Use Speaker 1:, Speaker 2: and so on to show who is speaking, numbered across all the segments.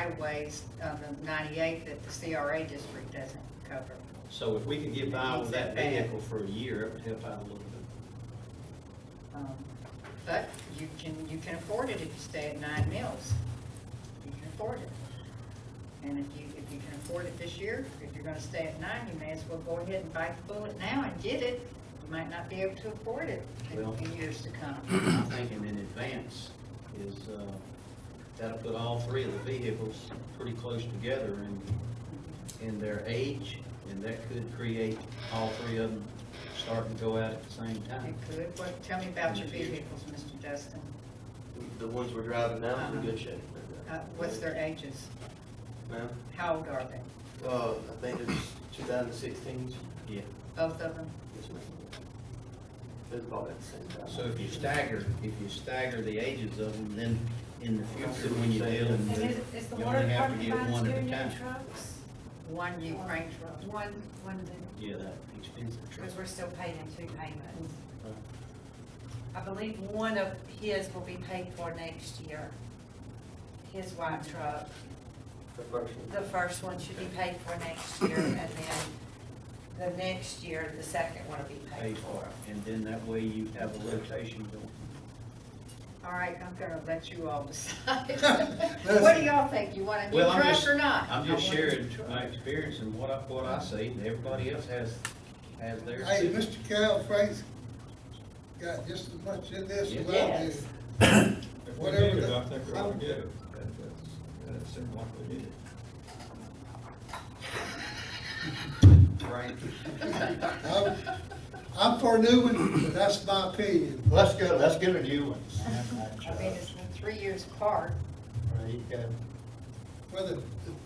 Speaker 1: right-of-ways of the 98 that the CRA district doesn't cover.
Speaker 2: So if we could get by with that
Speaker 1: Makes it bad.
Speaker 2: vehicle for a year, it would help out a little bit.
Speaker 1: Um, But you can, you can afford it if you stay at nine mills. You can afford it. And if you, if you can afford it this year, if you're gonna stay at nine, you may as well go ahead and bite the bullet now and get it. You might not be able to afford it in-
Speaker 2: Well-
Speaker 1: in years to come.
Speaker 2: I'm thinking in advance is, uh, that'll put all three of the vehicles pretty close together in, in their age, and that could create all three of them starting to go out at the same
Speaker 1: It
Speaker 2: time.
Speaker 1: could. What, tell me about your vehicles, Mr. Justin.
Speaker 3: The ones we're driving now are in good shape.
Speaker 1: Uh, What's their ages?
Speaker 3: Ma'am?
Speaker 1: How old are they?
Speaker 3: Uh, I think it's two thousand sixteen.
Speaker 2: Yeah,
Speaker 1: Both of them?
Speaker 3: Yes, ma'am. It's about at the same time.
Speaker 2: so if you stagger, if you stagger the ages of them, then in the future, when you deal in
Speaker 4: And is,
Speaker 2: with,
Speaker 4: is the
Speaker 2: you
Speaker 4: water
Speaker 2: only have to
Speaker 4: department
Speaker 2: get
Speaker 4: buying
Speaker 2: one
Speaker 4: two
Speaker 2: at a
Speaker 4: new
Speaker 2: time.
Speaker 4: trucks?
Speaker 1: One you crank truck.
Speaker 4: One, one of them,
Speaker 2: Yeah, that expensive truck.
Speaker 4: because we're still paying two payments.
Speaker 2: Right.
Speaker 4: I believe one of his will be paid for next year. His white truck,
Speaker 3: The first one.
Speaker 4: the first one should be paid for next year, and then the next year, the second one will be
Speaker 2: pay
Speaker 4: paid
Speaker 2: for
Speaker 4: for.
Speaker 2: it, and then that way you have a rotation going.
Speaker 1: All right, I'm gonna let you all decide. What do y'all think? You want a new
Speaker 2: Well, I'm
Speaker 1: truck
Speaker 2: just-
Speaker 1: or not?
Speaker 2: I'm just
Speaker 1: I want a new
Speaker 2: sharing
Speaker 1: truck.
Speaker 2: my experience and what I, what I see, and everybody else has, has theirs
Speaker 5: Hey,
Speaker 2: too.
Speaker 5: Mr. Cal Frank's got just as much in this as I
Speaker 1: Yes.
Speaker 5: did.
Speaker 6: If we need it, I think we ought to get it. That, that's, that seemed like we need it.
Speaker 2: Right.
Speaker 5: I'm, I'm for a new one, but that's my opinion.
Speaker 7: Let's go, let's get a new one.
Speaker 1: I mean, it's been three years apart.
Speaker 7: There you go.
Speaker 5: Whether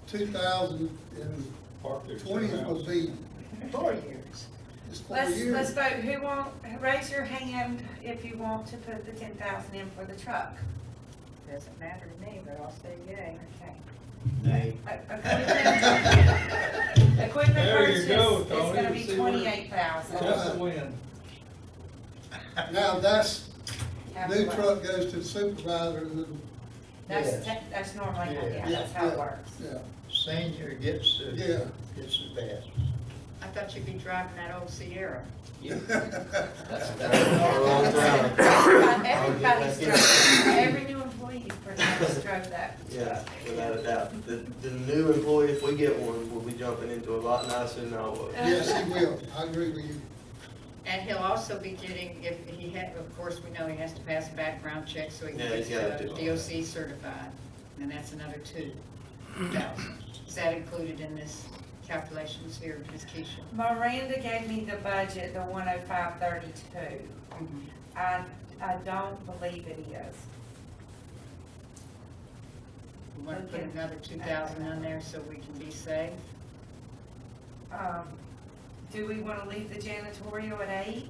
Speaker 5: two thousand and
Speaker 6: Park their
Speaker 5: twenty will
Speaker 6: house.
Speaker 5: be,
Speaker 1: Four years.
Speaker 5: it's four
Speaker 4: Let's, let's
Speaker 5: years.
Speaker 4: vote, who want, raise your hand if you want to put the ten thousand in for the truck.
Speaker 1: Doesn't matter to me, but I'll say yay.
Speaker 4: Okay.
Speaker 2: Nay.
Speaker 4: E- Equipment equipment
Speaker 6: There you
Speaker 4: purchase is
Speaker 6: go, Tony, you
Speaker 4: gonna be
Speaker 6: see where-
Speaker 4: twenty-eight thousand.
Speaker 6: Just the wind.
Speaker 5: Now, that's, new truck goes to the supervisor and then,
Speaker 4: That's,
Speaker 7: Yes.
Speaker 4: that- that's normally,
Speaker 7: Yeah.
Speaker 4: yeah, that's how
Speaker 5: Yeah.
Speaker 4: it works.
Speaker 5: yeah,
Speaker 7: Senior gets the,
Speaker 5: Yeah.
Speaker 7: gets the best.
Speaker 1: I thought you'd be driving that old Sierra.
Speaker 2: That's,
Speaker 7: We're all
Speaker 2: that's.
Speaker 7: down.
Speaker 4: Everybody's drove, every new employee pretty much drove that.
Speaker 3: Yeah, without a doubt. The, the new employee, if we get one, will be jumping into a lot nicer than I was.
Speaker 5: Yes, he will, I agree with you.
Speaker 1: And he'll also be getting, if he had, of course, we know he has to pass a background check so he
Speaker 3: Yeah,
Speaker 1: can
Speaker 3: he's
Speaker 1: get
Speaker 3: gotta
Speaker 1: uh,
Speaker 3: do all that.
Speaker 1: DOC certified. And that's another two thousand. Is that included in this calculations here, Ms. Keisha?
Speaker 4: Miranda gave me the budget, the one oh five thirty-two.
Speaker 1: Mm-hmm.
Speaker 4: I, I don't believe it is.
Speaker 1: We want to put another two thousand on there so we can be safe.
Speaker 4: Um, do we wanna leave the janitorial at eight?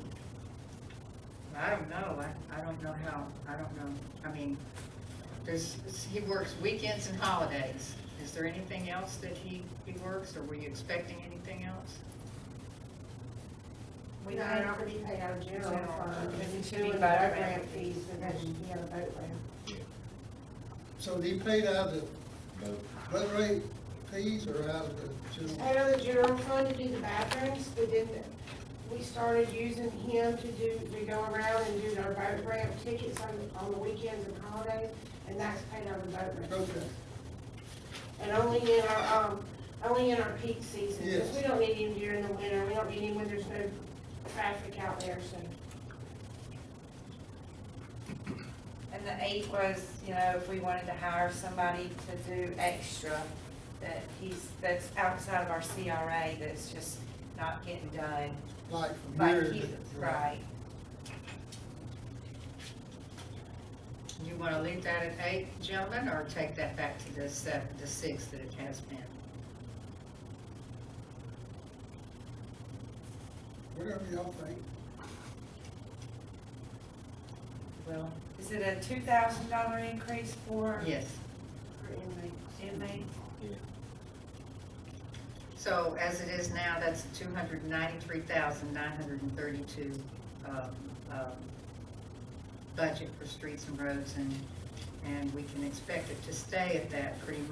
Speaker 1: I don't know, I, I don't know how, I don't know, I mean, there's, he works weekends and holidays. Is there anything else that he, he works, or were you expecting anything else?
Speaker 4: We
Speaker 8: No,
Speaker 4: paid-
Speaker 8: not when you pay out of general
Speaker 4: General
Speaker 8: fund,
Speaker 4: fund.
Speaker 8: because
Speaker 4: It
Speaker 8: it's
Speaker 4: should
Speaker 8: doing
Speaker 4: be
Speaker 8: the boat
Speaker 4: better than-
Speaker 8: ramp fees, and that's, you have a boat ramp.
Speaker 5: So do you pay it out of the run rate fees or out of the general?
Speaker 8: Out of the general fund to do the bathrooms, but then we started using him to do, to go around and do our boat ramp tickets on, on the weekends and holidays, and that's paid out of the boat ramp.
Speaker 5: Okay,
Speaker 8: And only in our, um, only in our peak season, because
Speaker 5: Yes.
Speaker 8: we don't need him during the winter, we don't need him when there's no traffic out there, so.
Speaker 4: And the eight was, you know, if we wanted to hire somebody to do extra, that he's, that's outside of our CRA, that's just not getting done.
Speaker 5: like from here.
Speaker 4: Like
Speaker 5: to-
Speaker 4: he, right.
Speaker 1: You wanna leave that at eight, gentlemen, or take that back to the seven, the six that it has been?
Speaker 5: Whatever y'all think.
Speaker 1: Well,
Speaker 4: Is it a two thousand dollar increase for
Speaker 1: yes,
Speaker 8: our inmates.
Speaker 4: inmates?
Speaker 1: so as it is now, that's two hundred ninety-three thousand nine hundred and thirty-two, um, um, budget for streets and roads, and, and we can expect it to stay at that pretty much.